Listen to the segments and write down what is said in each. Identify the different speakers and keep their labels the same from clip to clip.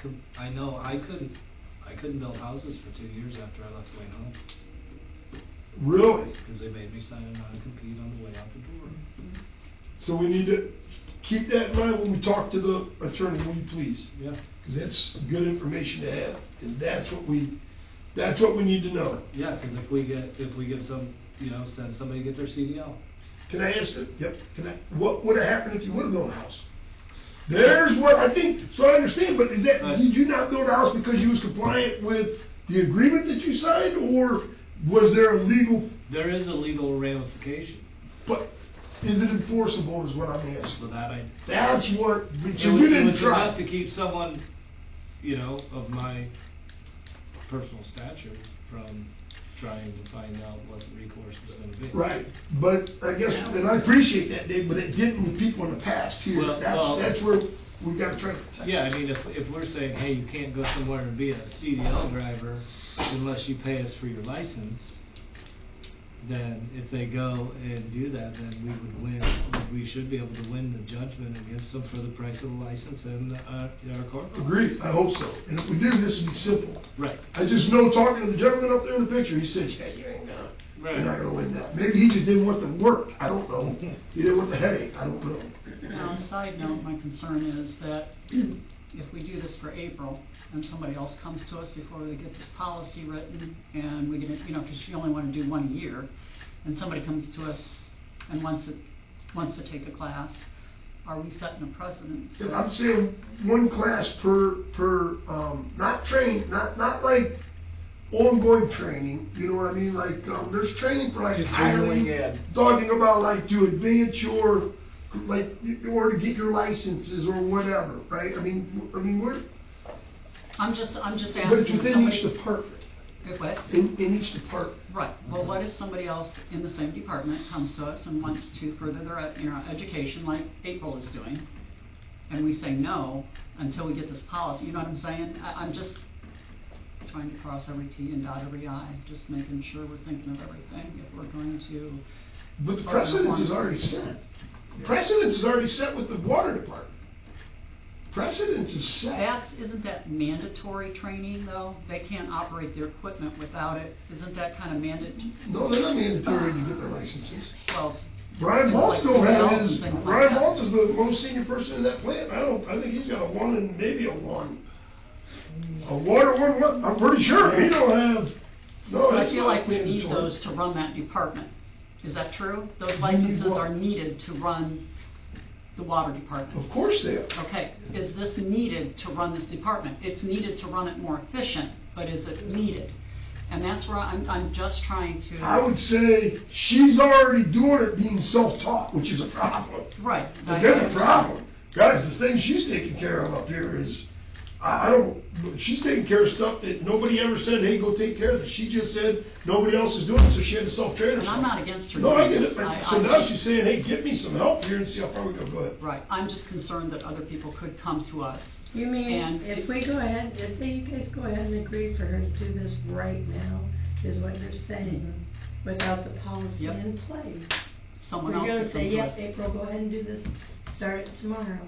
Speaker 1: com- I know, I couldn't, I couldn't build houses for two years after I left Wayne Home,
Speaker 2: Really?
Speaker 1: because they made me sign a non-compete on the way out the door.
Speaker 2: So we need to keep that in mind when we talk to the attorney, will you please?
Speaker 1: Yeah,
Speaker 2: Because that's good information to have, and that's what we, that's what we need to know.
Speaker 1: yeah, because if we get, if we get some, you know, send somebody to get their CDL.
Speaker 2: Can I ask that, yep, can I, what would have happened if you would have built a house? There's what I think, so I understand, but is that,
Speaker 1: Right.
Speaker 2: did you not build a house because you was compliant with the agreement that you signed, or was there a legal,
Speaker 1: There is a legal ramification
Speaker 2: but is it enforceable is what I'm asking.
Speaker 1: for that, I,
Speaker 2: That's what, but
Speaker 1: It
Speaker 2: you
Speaker 1: was, it
Speaker 2: didn't
Speaker 1: was
Speaker 2: try.
Speaker 1: enough to keep someone, you know, of my personal stature from trying to find out what the recourse was gonna be.
Speaker 2: Right, but I guess, and I appreciate that, Dave, but it didn't with people in the past here.
Speaker 1: Well, well-
Speaker 2: That's, that's where we gotta try to protect.
Speaker 1: Yeah, I mean, if, if we're saying, hey, you can't go somewhere and be a CDL driver unless you pay us for your license, then if they go and do that, then we would win, we should be able to win the judgment against them for the price of the license and, uh, our court.
Speaker 2: Agreed, I hope so. And if we do, this would be simple.
Speaker 1: Right,
Speaker 2: I just know talking to the gentleman up there in the picture, he says, yeah, you ain't gonna,
Speaker 1: right.
Speaker 2: you're not gonna win that. Maybe he just didn't want the work, I don't know. He didn't want the headache, I don't know.
Speaker 3: Now, on a side note, my concern is that if we do this for April, and somebody else comes to us before we get this policy written, and we get it, you know, because you only want to do one a year, and somebody comes to us and wants it, wants to take a class, are we setting a precedent?
Speaker 2: And I'm saying one class per, per, um, not train, not, not like ongoing training, you know what I mean? Like, um, there's training for like
Speaker 4: Just generally,
Speaker 2: highly,
Speaker 4: yeah.
Speaker 2: talking about like to advance your, like, or to get your licenses or whatever, right? I mean, w- I mean, we're,
Speaker 3: I'm just, I'm just
Speaker 2: but it's
Speaker 3: asking if
Speaker 2: within each
Speaker 3: somebody.
Speaker 2: department,
Speaker 3: Eh, What?
Speaker 2: in, in each department.
Speaker 3: Right, well, what if somebody else in the same department comes to us and wants to further their, uh, you know, education like April is doing? And we say no until we get this policy, you know what I'm saying? I, I'm just trying to cross every T and dot every I, just making sure we're thinking of everything if we're going to.
Speaker 2: But the precedence is already set. Precedence is already set with the water department. Precedence is set.
Speaker 3: That's, isn't that mandatory training though? They can't operate their equipment without it. Isn't that kind of mandatory?
Speaker 2: No, they're not mandatory to get their licenses.
Speaker 3: Well,
Speaker 2: Brian
Speaker 3: Things
Speaker 2: Waltz
Speaker 3: like
Speaker 2: don't have his,
Speaker 3: things like
Speaker 2: Brian
Speaker 3: that.
Speaker 2: Waltz is the most senior person in that plant. I don't, I think he's got a one and maybe a one. A water one, one, I'm pretty sure. He don't have, no,
Speaker 3: But I
Speaker 2: it's
Speaker 3: feel
Speaker 2: not
Speaker 3: like we need
Speaker 2: mandatory.
Speaker 3: those to run that department. Is that true? Those
Speaker 2: need
Speaker 3: licenses
Speaker 2: what?
Speaker 3: are needed to run the water department.
Speaker 2: Of course they are.
Speaker 3: Okay, is this needed to run this department? It's needed to run it more efficient, but is it needed? And that's where I'm, I'm just trying
Speaker 2: I
Speaker 3: to,
Speaker 2: would say she's already doing it being self-taught, which is a problem.
Speaker 3: right.
Speaker 2: But there's a problem. Guys, the thing she's taking care of up here is, I, I don't, she's taking care of stuff that nobody ever said, hey, go take care of this. She just said, nobody else is doing it, so she had to self-train
Speaker 3: And
Speaker 2: herself.
Speaker 3: I'm not against her.
Speaker 2: No, I
Speaker 3: doing
Speaker 2: get
Speaker 3: this.
Speaker 2: it.
Speaker 3: I-
Speaker 2: So
Speaker 3: I-
Speaker 2: now she's saying, hey, get me some help here and see how far we go. Go ahead.
Speaker 3: Right, I'm just concerned that other people could come to us.
Speaker 5: You mean,
Speaker 3: And
Speaker 5: if
Speaker 3: it-
Speaker 5: we go ahead, if you guys go ahead and agree for her to do this right now, is what you're saying, without the policy
Speaker 3: Yep.
Speaker 5: in place?
Speaker 3: Someone else
Speaker 5: We're
Speaker 3: could
Speaker 5: gonna
Speaker 3: come
Speaker 5: say,
Speaker 3: to
Speaker 5: yep,
Speaker 3: us.
Speaker 5: April, go ahead and do this, start it tomorrow.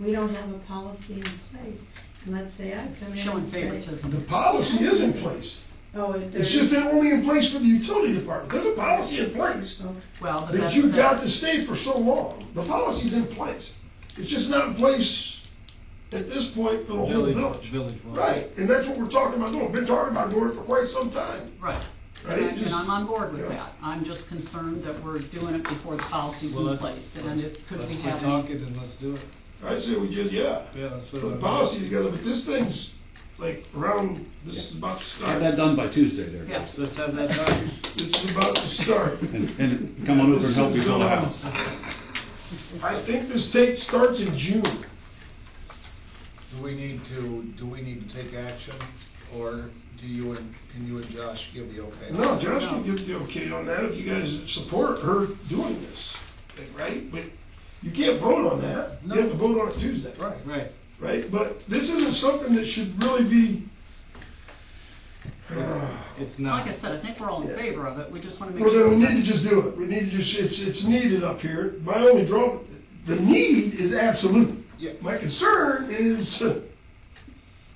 Speaker 5: We don't have a policy in place. And let's say I come in
Speaker 3: Showing
Speaker 5: and say.
Speaker 2: The
Speaker 3: favoritism.
Speaker 2: policy is in place.
Speaker 5: Oh, if there's.
Speaker 2: It's just they're only in place for the utility department. There's a policy in place
Speaker 5: Oh,
Speaker 3: Well, but
Speaker 2: that
Speaker 3: that's.
Speaker 2: you got to stay for so long. The policy's in place. It's just not in place at this point for the whole
Speaker 1: Village-
Speaker 2: village.
Speaker 1: village wide.
Speaker 2: Right, and that's what we're talking about doing. We've been talking about doing it for quite some time.
Speaker 3: Right.
Speaker 2: Right,
Speaker 3: And I-
Speaker 2: just-
Speaker 3: and I'm on board with
Speaker 2: yeah.
Speaker 3: that. I'm just concerned that we're doing it before the policy's
Speaker 1: Well,
Speaker 3: in
Speaker 1: let's-
Speaker 3: place, and it could
Speaker 1: let's
Speaker 3: be
Speaker 1: quit
Speaker 3: having...
Speaker 1: talking and let's do it.
Speaker 2: I say we just, yeah,
Speaker 1: Yeah, that's
Speaker 2: put
Speaker 1: what
Speaker 2: a
Speaker 1: I'm-
Speaker 2: policy together, but this thing's like around, this is about to
Speaker 4: Have that
Speaker 2: start.
Speaker 4: done by Tuesday there.
Speaker 3: Yeah.
Speaker 1: Let's have that done.
Speaker 2: This is about to start.
Speaker 4: And, and come on over and help me build a house.
Speaker 2: I think this date starts in June.
Speaker 6: Do we need to, do we need to take action, or do you and, can you and Josh give the okay?
Speaker 2: No, Josh can give the okay on that if you guys support her doing this, like, right? But you can't vote on that. You have to vote on it Tuesday.
Speaker 6: Right.
Speaker 1: Right.
Speaker 2: Right, but this isn't something that should really be.
Speaker 1: It's
Speaker 3: Like
Speaker 1: not.
Speaker 3: I said, I think we're all in
Speaker 2: Yeah.
Speaker 3: favor of it, we just want to make
Speaker 2: Well,
Speaker 3: sure...
Speaker 2: then we
Speaker 3: that-
Speaker 2: need to just do it. We need to just, it's, it's needed up here. My only draw, the need is absolute.
Speaker 6: Yeah.
Speaker 2: My concern is